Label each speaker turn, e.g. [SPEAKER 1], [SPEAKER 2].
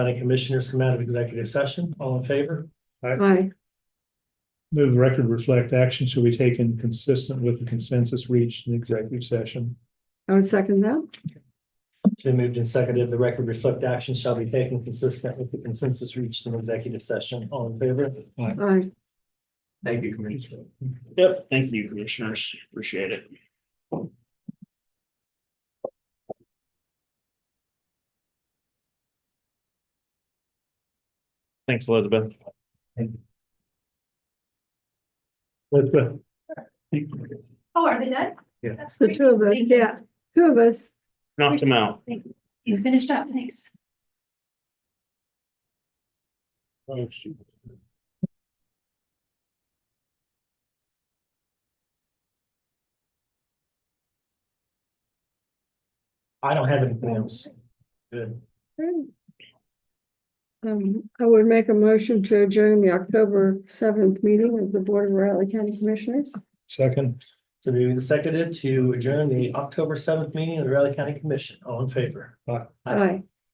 [SPEAKER 1] County Commissioners come out of executive session. All in favor?
[SPEAKER 2] Aye.
[SPEAKER 3] Move the record reflect action should be taken consistent with the consensus reached in executive session.
[SPEAKER 2] I would second that.
[SPEAKER 1] It's been moved and seconded. The record reflect action shall be taken consistent with the consensus reached in executive session. All in favor?
[SPEAKER 2] Aye.
[SPEAKER 4] Thank you, Commissioner.
[SPEAKER 5] Yep, thank you, commissioners. Appreciate it. Thanks, Elizabeth.
[SPEAKER 3] Elizabeth,
[SPEAKER 6] Oh, are they done?
[SPEAKER 3] Yeah.
[SPEAKER 6] That's
[SPEAKER 2] The
[SPEAKER 6] great.
[SPEAKER 2] two of us,
[SPEAKER 6] Thank you.
[SPEAKER 2] yeah, two of us.
[SPEAKER 5] Knocked them out.
[SPEAKER 6] He's finished up, thanks.
[SPEAKER 1] Oh, I don't have anything else. Good.
[SPEAKER 2] Um, I would make a motion to adjourn the October seventh meeting of the Board of Riley County Commissioners.
[SPEAKER 3] second.
[SPEAKER 1] So moved and seconded to adjourn the October seventh meeting of the Riley County Commission. All in favor?
[SPEAKER 2] Aye.